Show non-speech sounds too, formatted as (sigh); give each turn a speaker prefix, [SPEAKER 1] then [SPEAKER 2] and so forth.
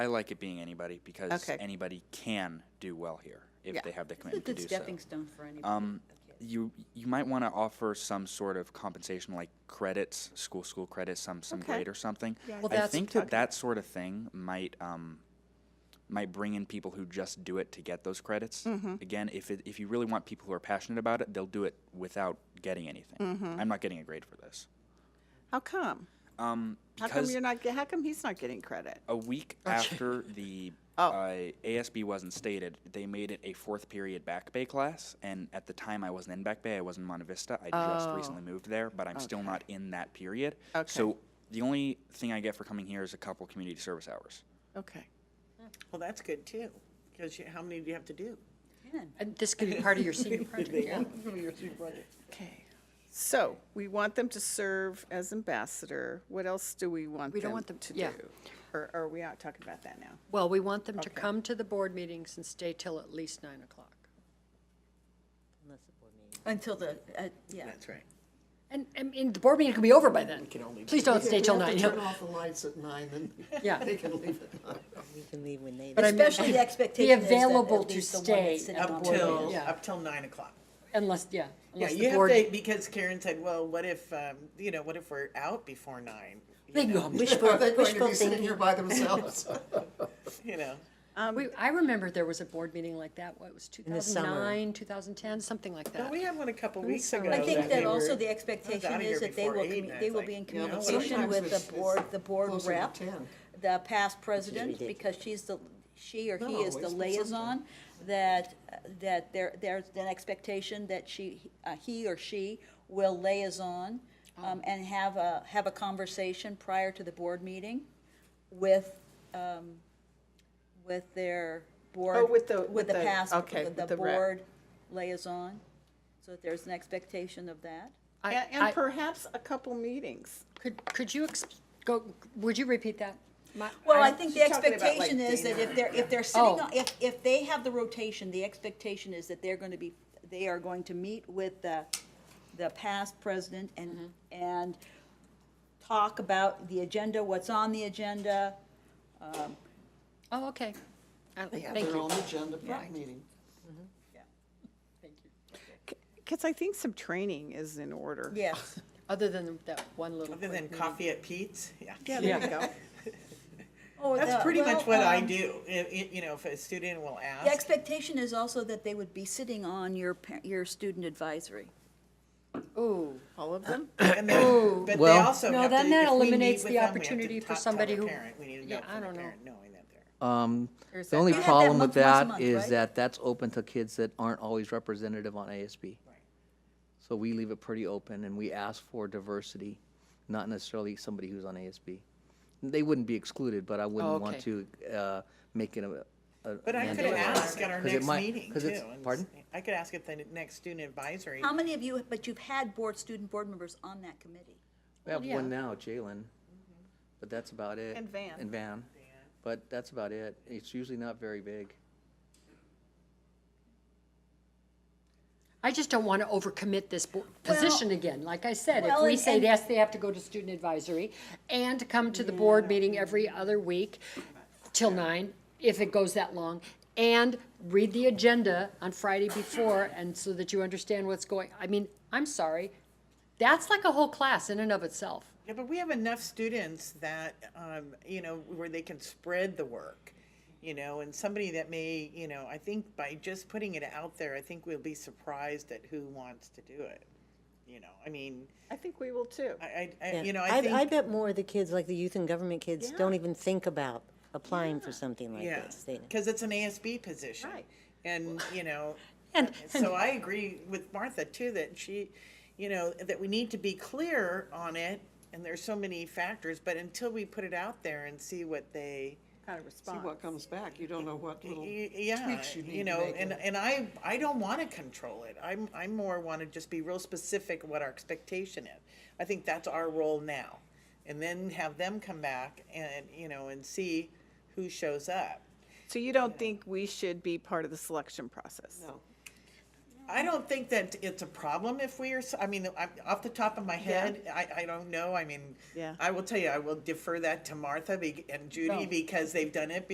[SPEAKER 1] I like it being anybody because
[SPEAKER 2] Okay.
[SPEAKER 1] anybody can do well here if
[SPEAKER 2] Yeah.
[SPEAKER 1] they have the
[SPEAKER 3] It's a
[SPEAKER 1] commitment to
[SPEAKER 3] good
[SPEAKER 1] do
[SPEAKER 3] stepping
[SPEAKER 1] so.
[SPEAKER 3] stone for anybody.
[SPEAKER 1] Um, you you might want to offer some sort of compensation like credits, school school credits, some some
[SPEAKER 2] Okay.
[SPEAKER 1] grade or something.
[SPEAKER 2] Yeah, I
[SPEAKER 3] Well,
[SPEAKER 1] I
[SPEAKER 3] that's-
[SPEAKER 1] think that that sort of thing might um, might bring in people who just do it to get those credits.
[SPEAKER 2] Mm-hmm.
[SPEAKER 1] Again, if it, if you really want people who are passionate about it, they'll do it without getting anything.
[SPEAKER 2] Mm-hmm.
[SPEAKER 1] I'm not getting a grade for this.
[SPEAKER 2] How come?
[SPEAKER 1] Um,
[SPEAKER 2] How
[SPEAKER 1] because
[SPEAKER 2] come you're not, ge- how come he's not getting credit?
[SPEAKER 1] a
[SPEAKER 2] (laughs)
[SPEAKER 1] week after the
[SPEAKER 2] Oh.
[SPEAKER 1] uh, ASB wasn't stated, they made it a fourth period back bay class. And at the time, I wasn't in back bay. I was in Monte Vista. I just
[SPEAKER 2] Oh.
[SPEAKER 1] recently moved there, but I'm still not in that period.
[SPEAKER 2] Okay.
[SPEAKER 1] So the only thing I get for coming here is a couple community service hours.
[SPEAKER 2] Okay.
[SPEAKER 4] Well, that's good too, because how many do you have to do?
[SPEAKER 3] And This could be part of your senior project, yeah.
[SPEAKER 2] Okay. So we want them to serve as ambassador. What else do we want
[SPEAKER 5] We don't
[SPEAKER 2] them
[SPEAKER 5] want them-
[SPEAKER 2] to do?
[SPEAKER 5] yeah.
[SPEAKER 2] Or or are we not talking about that now?
[SPEAKER 5] Well, we want them to come to the board meetings and stay till at least nine o'clock.
[SPEAKER 3] Until the, uh, yeah.
[SPEAKER 4] That's right.
[SPEAKER 5] And, and and the board meeting could be over by then.
[SPEAKER 6] only-
[SPEAKER 5] Please don't stay till
[SPEAKER 6] We have
[SPEAKER 4] (laughs)
[SPEAKER 5] nine.
[SPEAKER 6] to Turn off the lights at nine and
[SPEAKER 5] Yeah.
[SPEAKER 6] they can leave at nine.
[SPEAKER 7] You can leave when they.
[SPEAKER 5] But I mean,
[SPEAKER 3] Especially the expectation is that at
[SPEAKER 5] available to
[SPEAKER 3] least the one that's
[SPEAKER 5] stay
[SPEAKER 3] sitting
[SPEAKER 5] at
[SPEAKER 3] on
[SPEAKER 4] Up
[SPEAKER 3] board
[SPEAKER 4] till,
[SPEAKER 3] meeting.
[SPEAKER 5] yeah.
[SPEAKER 4] up till nine o'clock.
[SPEAKER 5] Unless, yeah,
[SPEAKER 4] Yeah,
[SPEAKER 5] unless
[SPEAKER 4] you
[SPEAKER 5] the
[SPEAKER 4] have to,
[SPEAKER 5] board.
[SPEAKER 4] because Karen said, well, what if, um, you know, what if we're out before nine? You
[SPEAKER 5] They can
[SPEAKER 4] know,
[SPEAKER 5] go
[SPEAKER 4] (laughs)
[SPEAKER 5] home.
[SPEAKER 7] Wishful,
[SPEAKER 6] They're going to
[SPEAKER 7] wishful
[SPEAKER 6] be sitting
[SPEAKER 7] thinking.
[SPEAKER 6] here by themselves.
[SPEAKER 4] You know,
[SPEAKER 5] We, I remember there was a board meeting like that, what, it was two
[SPEAKER 7] the
[SPEAKER 5] thousand nine, two thousand ten, something like
[SPEAKER 4] but
[SPEAKER 5] that.
[SPEAKER 4] we had one a couple weeks
[SPEAKER 5] sound
[SPEAKER 4] ago.
[SPEAKER 3] I think that
[SPEAKER 4] we
[SPEAKER 3] also
[SPEAKER 4] were-
[SPEAKER 3] the
[SPEAKER 4] I was
[SPEAKER 3] expectation
[SPEAKER 4] outta
[SPEAKER 3] is
[SPEAKER 4] here
[SPEAKER 3] that they
[SPEAKER 4] before
[SPEAKER 3] will, commu-
[SPEAKER 4] eight, and
[SPEAKER 3] they
[SPEAKER 4] it's
[SPEAKER 3] will
[SPEAKER 4] like,
[SPEAKER 3] be in
[SPEAKER 4] you know,
[SPEAKER 6] but
[SPEAKER 3] communication
[SPEAKER 6] sometimes
[SPEAKER 3] with
[SPEAKER 6] it's-
[SPEAKER 3] the board,
[SPEAKER 6] it's
[SPEAKER 3] the board
[SPEAKER 6] closer to
[SPEAKER 3] rep,
[SPEAKER 6] 10.
[SPEAKER 3] the past president, because she's the, she or he
[SPEAKER 6] Not
[SPEAKER 3] is the
[SPEAKER 6] always, but
[SPEAKER 3] liaison, that, uh, that there, there's an expectation that she, uh, he or she will liaison um, and have a, have a conversation prior to the board meeting with, um, with their board.
[SPEAKER 2] Oh, with the- with
[SPEAKER 3] With the
[SPEAKER 2] the-
[SPEAKER 3] past,
[SPEAKER 2] okay,
[SPEAKER 3] with
[SPEAKER 2] with
[SPEAKER 3] the
[SPEAKER 2] the rep.
[SPEAKER 3] board liaison, so that there's an expectation of that.
[SPEAKER 5] I-
[SPEAKER 2] And and
[SPEAKER 5] I-
[SPEAKER 2] perhaps a couple meetings.
[SPEAKER 5] Could, could you ex, go, would you repeat that? My-
[SPEAKER 3] Well, I think the
[SPEAKER 4] she's talking about, like,
[SPEAKER 3] expectation is that if
[SPEAKER 4] dinner.
[SPEAKER 3] they're, if they're sitting,
[SPEAKER 5] Oh.
[SPEAKER 3] on- if, if they have the rotation, the expectation is that they're going to be, they are going to meet with the, the past president and, and talk about the agenda, what's on the agenda.
[SPEAKER 5] Oh, okay. I-
[SPEAKER 6] They have
[SPEAKER 5] Thank
[SPEAKER 6] their
[SPEAKER 5] you.
[SPEAKER 6] own agenda for meeting.
[SPEAKER 2] Because I think some training is in order.
[SPEAKER 3] Yes.
[SPEAKER 5] Other than that one little.
[SPEAKER 4] Other
[SPEAKER 5] board
[SPEAKER 4] than
[SPEAKER 5] meeting.
[SPEAKER 4] coffee at Pete's, yeah.
[SPEAKER 2] Yeah, there you go.
[SPEAKER 3] Oh,
[SPEAKER 4] That's pretty much what
[SPEAKER 5] um,
[SPEAKER 3] um,
[SPEAKER 4] I do. If- if, you know, if a student will
[SPEAKER 3] The
[SPEAKER 4] ask,
[SPEAKER 3] expectation is also that they would be sitting on your, pa- your student advisory.
[SPEAKER 5] Ooh.
[SPEAKER 2] All of
[SPEAKER 4] (laughs)
[SPEAKER 2] them?
[SPEAKER 4] and then, but they
[SPEAKER 8] Well-
[SPEAKER 4] also
[SPEAKER 5] No,
[SPEAKER 4] have to,
[SPEAKER 5] then
[SPEAKER 4] if
[SPEAKER 5] that
[SPEAKER 4] we meet
[SPEAKER 5] eliminates
[SPEAKER 4] with
[SPEAKER 5] the
[SPEAKER 4] them, we have to
[SPEAKER 5] opportunity for
[SPEAKER 4] ta- tell
[SPEAKER 5] somebody
[SPEAKER 4] their
[SPEAKER 5] who-
[SPEAKER 4] parent. We need to
[SPEAKER 5] Yeah,
[SPEAKER 4] know
[SPEAKER 5] I
[SPEAKER 4] from the
[SPEAKER 5] don't know.
[SPEAKER 4] parent knowing that they're.
[SPEAKER 8] Um,
[SPEAKER 5] There's
[SPEAKER 8] the
[SPEAKER 5] that-
[SPEAKER 8] only
[SPEAKER 5] You
[SPEAKER 3] have that
[SPEAKER 8] problem
[SPEAKER 3] month
[SPEAKER 8] with
[SPEAKER 3] once a
[SPEAKER 8] that
[SPEAKER 3] month,
[SPEAKER 8] is
[SPEAKER 3] right?
[SPEAKER 8] that that's open to kids that aren't always representative on ASB. So we leave it pretty open and we ask for diversity, not necessarily somebody who's on ASB. They wouldn't be excluded, but I
[SPEAKER 5] Oh,
[SPEAKER 8] wouldn't want
[SPEAKER 5] okay.
[SPEAKER 8] to, uh, make it a. a
[SPEAKER 4] But I could
[SPEAKER 8] mandatory.
[SPEAKER 4] ask at our
[SPEAKER 8] 'Cause it
[SPEAKER 4] next
[SPEAKER 8] might-
[SPEAKER 4] meeting
[SPEAKER 8] 'cause
[SPEAKER 4] too.
[SPEAKER 8] it's-
[SPEAKER 4] and
[SPEAKER 8] Pardon?
[SPEAKER 4] s- I could ask at the n- next student advisory.
[SPEAKER 3] How many of you, but you've had board, student board members on that committee?
[SPEAKER 8] We have
[SPEAKER 5] yeah.
[SPEAKER 8] one now, Jalen,
[SPEAKER 3] Mm-hmm.
[SPEAKER 8] but that's about it.
[SPEAKER 2] And Van.
[SPEAKER 8] And Van, but that's about it. It's usually not very big.
[SPEAKER 5] I just don't want to overcommit this bo- position again. Like I said, if
[SPEAKER 3] Well,
[SPEAKER 5] we
[SPEAKER 3] and-
[SPEAKER 5] say,
[SPEAKER 3] and-
[SPEAKER 5] yes, they have to go to student advisory and to come to the board meeting every other week till nine, if it goes that long, and read the agenda on Friday before, and so that you understand what's going, I mean, I'm sorry, that's like a whole class in and of itself.
[SPEAKER 4] Yeah, but we have enough students that, um, you know, where they can spread the work, you know, and somebody that may, you know, I think by just putting it out there, I think we'll be surprised at who wants to do it. You know, I mean,
[SPEAKER 2] I think we will too.
[SPEAKER 4] I, I, I
[SPEAKER 7] Yeah.
[SPEAKER 4] you know, I think.
[SPEAKER 7] I bet more of the kids, like the youth and government kids, don't even think about applying for something like
[SPEAKER 4] Yeah,
[SPEAKER 7] this. They-
[SPEAKER 4] because it's an ASB position.
[SPEAKER 2] Right.
[SPEAKER 4] And, you know, uh,
[SPEAKER 5] And-
[SPEAKER 4] so I agree with Martha too, that she, you know, that we need to be clear on it. And there's so many factors, but until we put it out there and see what they,
[SPEAKER 2] Kind of
[SPEAKER 6] See
[SPEAKER 2] response.
[SPEAKER 6] what comes back. You don't know what little
[SPEAKER 4] y- yeah,
[SPEAKER 6] tweaks you need
[SPEAKER 4] you
[SPEAKER 6] to
[SPEAKER 4] know,
[SPEAKER 6] make in
[SPEAKER 4] and,
[SPEAKER 6] it.
[SPEAKER 4] and I, I don't want to control it. I'm, I more want to just be real specific what our expectation is. I think that's our role now. And then have them come back and, you know, and see who shows up.
[SPEAKER 2] So you don't think we should be part of the selection process?
[SPEAKER 6] No.
[SPEAKER 4] I don't think that it's a problem if we are, s- I mean, I- off the top of my head, I, I don't know, I mean,
[SPEAKER 2] Yeah.
[SPEAKER 4] I will tell you, I will defer that to Martha be- and
[SPEAKER 5] No.
[SPEAKER 4] Judy because they've done it